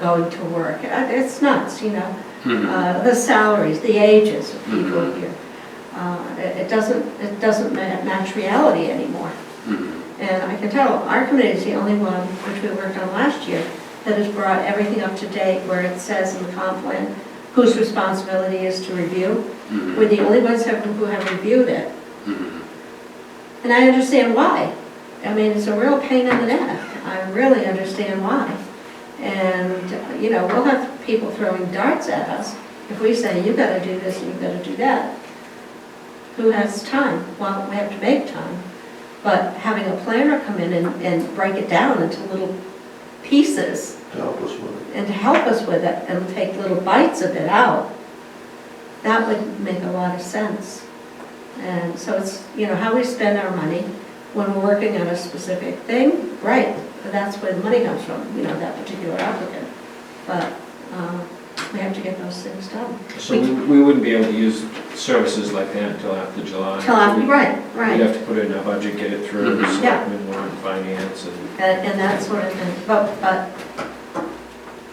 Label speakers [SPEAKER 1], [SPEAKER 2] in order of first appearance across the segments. [SPEAKER 1] going to work. Uh, It's nuts, you know,
[SPEAKER 2] Mhm.
[SPEAKER 1] uh, the salaries, the ages of people
[SPEAKER 2] Mhm.
[SPEAKER 1] here. Uh, It it doesn't, it doesn't ma- match reality anymore.
[SPEAKER 2] Mhm.
[SPEAKER 1] And I can tell, our committee is the only one, which we worked on last year, that has brought everything up to date where it says in the comp plan whose responsibility is to review.
[SPEAKER 2] Mhm.
[SPEAKER 1] We're the only ones have- who have reviewed it.
[SPEAKER 2] Mhm.
[SPEAKER 1] And I understand why. I mean, it's a real pain in the neck. I really understand why. And, you know, we'll have people throwing darts at us if we say, you gotta do this and you gotta do that. Who has time? Well, we have to make time. But having a planner come in and, and break it down into little pieces
[SPEAKER 3] to help us with it.
[SPEAKER 1] and to help us with it and take little bites of it out, that would make a lot of sense. And so it's, you know, how we spend our money when we're working on a specific thing, right, but that's where the money comes from, you know, that particular applicant. But um, we have to get those things done.
[SPEAKER 4] So we we wouldn't be able to use services like that until after July.
[SPEAKER 1] Till after,
[SPEAKER 4] We'd-
[SPEAKER 1] right, right.
[SPEAKER 4] We'd have to put it in our budget, get it through,
[SPEAKER 2] Mhm.
[SPEAKER 1] Yeah.
[SPEAKER 4] selectmen, warrant, finance, and,
[SPEAKER 1] And, and that sort of thing, but, but,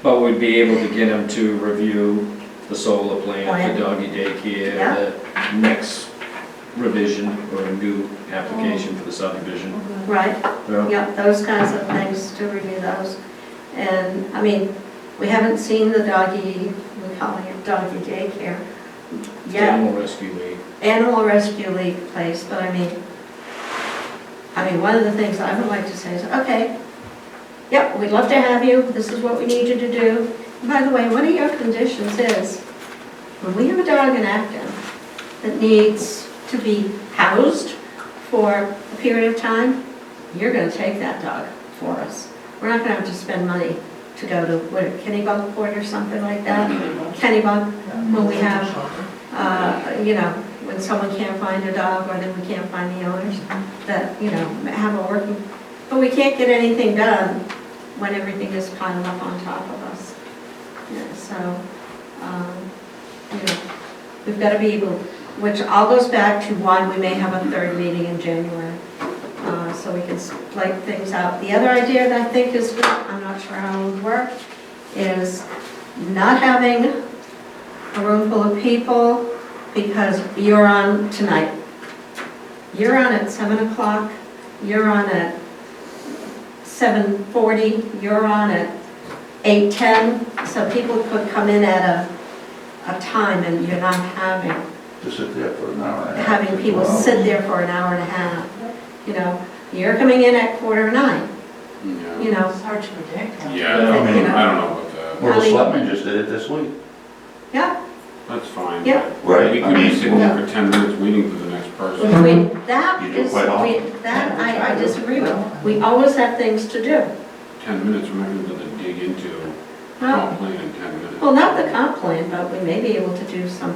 [SPEAKER 4] but we'd be able to get them to review the solar
[SPEAKER 1] Plan.
[SPEAKER 4] plant, the doggy daycare,
[SPEAKER 1] Yeah.
[SPEAKER 4] the next revision or a new application for the subdivision.
[SPEAKER 1] right?
[SPEAKER 4] No?
[SPEAKER 1] Yep, those kinds of things, to review those. And, I mean, we haven't seen the doggy, we call it doggy daycare yet.
[SPEAKER 4] Animal rescue league.
[SPEAKER 1] Animal Rescue League place, but I mean, I mean, one of the things I would like to say is, okay, yep, we'd love to have you, this is what we need you to do. And By the way, one of your conditions is, when we have a dog in Acton that needs to be housed for a period of time, you're gonna take that dog for us. We're not gonna have to spend money to go to, what, Kennebunkport or something like that? Kennebunk, when we have uh, you know, when someone can't find a dog or then we can't find the owners, that, you know, have a working, but we can't get anything done when everything is piled up on top of us. Yeah, So, um, you know, we've got to be able, which all goes back to why we may have a third meeting in January, uh, so we can split things out. The other idea that I think is, good, I'm not sure how it would work, is not having a room full of people because you're on tonight. You're on at seven o'clock, you're on at seven forty, you're on at eight ten. So people could come in at a, a time and you're not having,
[SPEAKER 3] To sit there for an hour and a half.
[SPEAKER 1] having people sit there for an hour and a half. You know, you're coming in at quarter to nine,
[SPEAKER 2] Yeah.
[SPEAKER 1] you know,
[SPEAKER 5] It's hard to predict.
[SPEAKER 2] Yeah, I don't, I don't know about that.
[SPEAKER 3] Well, the selectmen just did it this week.
[SPEAKER 1] yeah.
[SPEAKER 2] That's fine.
[SPEAKER 1] Yeah.
[SPEAKER 3] Right,
[SPEAKER 2] We
[SPEAKER 3] I
[SPEAKER 2] could
[SPEAKER 3] mean-
[SPEAKER 2] be sitting there for ten minutes waiting for the next person.
[SPEAKER 1] We, that
[SPEAKER 3] You do
[SPEAKER 1] is,
[SPEAKER 3] quite often.
[SPEAKER 1] we- that I, I disagree with. We always have things to do.
[SPEAKER 2] Ten minutes, we're not gonna be able to dig into
[SPEAKER 1] No.
[SPEAKER 2] comp plan in ten minutes.
[SPEAKER 1] Well, not the comp plan, but we may be able to do some,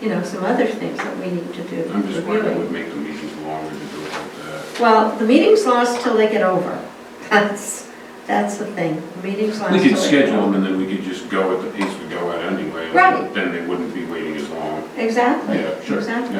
[SPEAKER 1] you know, some other things that we need to do.
[SPEAKER 2] I'm just worried it
[SPEAKER 1] reviewing.
[SPEAKER 2] would make the meetings longer to do it like that.
[SPEAKER 1] Well, the meeting's lost till they get over. That's, that's the thing. The meeting's lost
[SPEAKER 2] We
[SPEAKER 1] till they
[SPEAKER 2] could
[SPEAKER 1] get
[SPEAKER 2] schedule them
[SPEAKER 1] over.
[SPEAKER 2] and then we could just go at the pace we go at anyway. and
[SPEAKER 1] Right.
[SPEAKER 2] Then they wouldn't be waiting as long.
[SPEAKER 1] Exactly,
[SPEAKER 2] Yeah, sure,
[SPEAKER 1] exactly.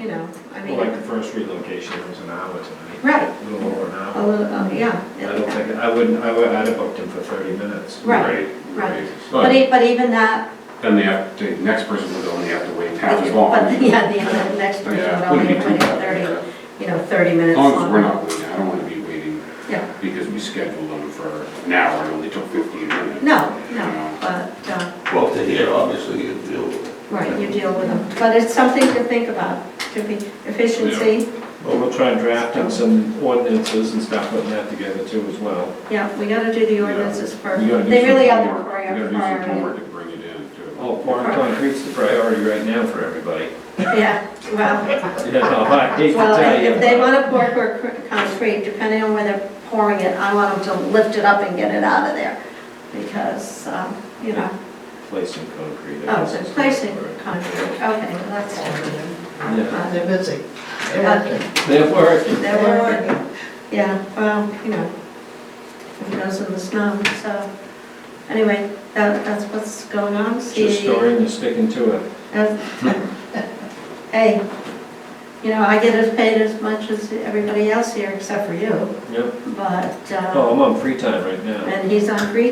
[SPEAKER 1] You know, I
[SPEAKER 4] Well, like
[SPEAKER 1] mean,
[SPEAKER 4] the first relocation, it was an hour tonight,
[SPEAKER 1] right,
[SPEAKER 4] a little over an
[SPEAKER 1] a
[SPEAKER 4] hour.
[SPEAKER 1] little, oh, yeah.
[SPEAKER 4] I don't think, I wouldn't, I would, I'd have booked him for 30 minutes.
[SPEAKER 1] Right. right.
[SPEAKER 2] Right.
[SPEAKER 1] But
[SPEAKER 2] But
[SPEAKER 1] e- but even that,
[SPEAKER 2] then they have, the next person would only have to wait half as long.
[SPEAKER 1] but, yeah, the the next person would
[SPEAKER 2] Yeah,
[SPEAKER 1] only
[SPEAKER 2] wouldn't be
[SPEAKER 1] be
[SPEAKER 2] too
[SPEAKER 1] thirty,
[SPEAKER 2] bad.
[SPEAKER 1] you know, thirty minutes
[SPEAKER 2] As long as
[SPEAKER 1] longer.
[SPEAKER 2] we're not waiting, I don't wanna be waiting
[SPEAKER 1] Yeah.
[SPEAKER 2] because we scheduled them for an hour and only took fifteen minutes.
[SPEAKER 1] No,
[SPEAKER 2] you
[SPEAKER 1] no,
[SPEAKER 2] know.
[SPEAKER 1] but, uh,
[SPEAKER 3] Well, to hear, obviously, you deal with it.
[SPEAKER 1] right, you deal with them. But it's something to think about, to be efficiency.
[SPEAKER 4] Well, we'll try and draft up some ordinances and stuff, putting that together too as well.
[SPEAKER 1] Yeah, we gotta do the
[SPEAKER 2] Yeah.
[SPEAKER 1] ordinances first.
[SPEAKER 2] We gotta do
[SPEAKER 1] They
[SPEAKER 2] some
[SPEAKER 1] really are the
[SPEAKER 2] homework. We
[SPEAKER 1] prior-
[SPEAKER 2] gotta do some
[SPEAKER 1] priority.
[SPEAKER 2] homework to bring it in too.
[SPEAKER 4] Oh, pouring concrete's the priority right now for everybody.
[SPEAKER 1] Yeah, well,
[SPEAKER 4] You know, I hate to
[SPEAKER 1] well,
[SPEAKER 4] tell
[SPEAKER 1] if-
[SPEAKER 4] you.
[SPEAKER 1] if they
[SPEAKER 4] but-
[SPEAKER 1] wanna pour cor- concrete, depending on where they're pouring it, I want them to lift it up and get it out of there. Because, um, you know,
[SPEAKER 4] Placing concrete. I
[SPEAKER 1] oh,
[SPEAKER 4] guess
[SPEAKER 1] so
[SPEAKER 4] is
[SPEAKER 1] placing
[SPEAKER 4] the word.
[SPEAKER 1] concrete, okay, well, that's different.
[SPEAKER 4] Yeah,
[SPEAKER 1] Uh,
[SPEAKER 5] They're busy. They're working.
[SPEAKER 4] They're working.
[SPEAKER 1] There were, yeah, well, you know, it goes in the snow, so, anyway, that, that's what's going on.
[SPEAKER 4] Just
[SPEAKER 1] See,
[SPEAKER 4] story and sticking to it.
[SPEAKER 1] Hey, you know, I get as paid as much as everybody else here except for you,
[SPEAKER 4] Yep.
[SPEAKER 1] but, uh,
[SPEAKER 4] Oh, I'm on free time right now.
[SPEAKER 1] and he's on free